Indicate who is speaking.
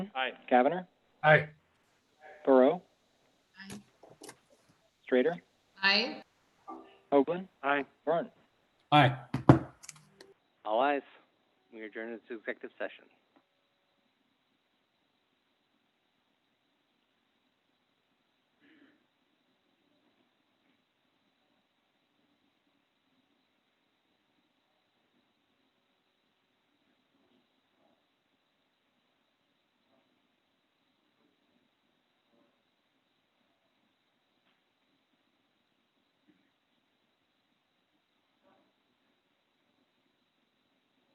Speaker 1: Aye. Cavanagh,
Speaker 2: Aye.
Speaker 1: Burrow. Strater,
Speaker 3: Aye.
Speaker 1: Hoagland. Aye. Vern.
Speaker 2: Aye.
Speaker 4: All ayes. We adjourn to executive session.